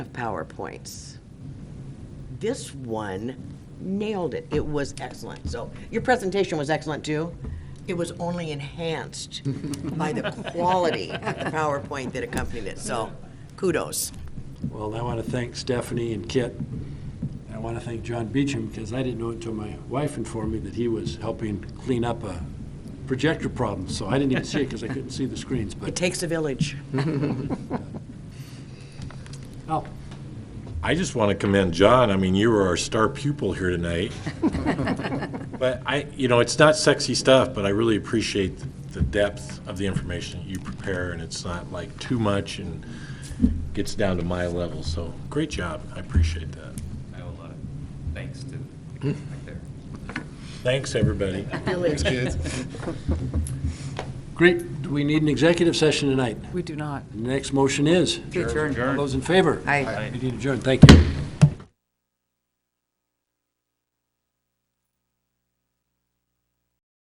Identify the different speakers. Speaker 1: of PowerPoints. This one nailed it. It was excellent. So your presentation was excellent too. It was only enhanced by the quality of the PowerPoint that accompanied it. So kudos.
Speaker 2: Well, I want to thank Stephanie and Kit. I want to thank John Beecham, because I didn't know until my wife informed me that he was helping clean up a projector problem, so I didn't even see it because I couldn't see the screens,
Speaker 1: It
Speaker 2: but,
Speaker 1: takes a village.
Speaker 2: oh,
Speaker 3: I just want to commend John. I mean, you were our star pupil here tonight. But I, you know, it's not sexy stuff, but I really appreciate the depth of the information you prepare, and it's not like too much and gets down to my level. So, great job. I appreciate that.
Speaker 4: I owe a lot of thanks to the kid back there.
Speaker 3: Thanks, everybody.
Speaker 2: great, do we need an executive session tonight?
Speaker 5: We do not.
Speaker 2: The next motion is,
Speaker 5: To adjourn.
Speaker 2: all those in favor?
Speaker 5: Aye.
Speaker 2: We need adjourn, thank you.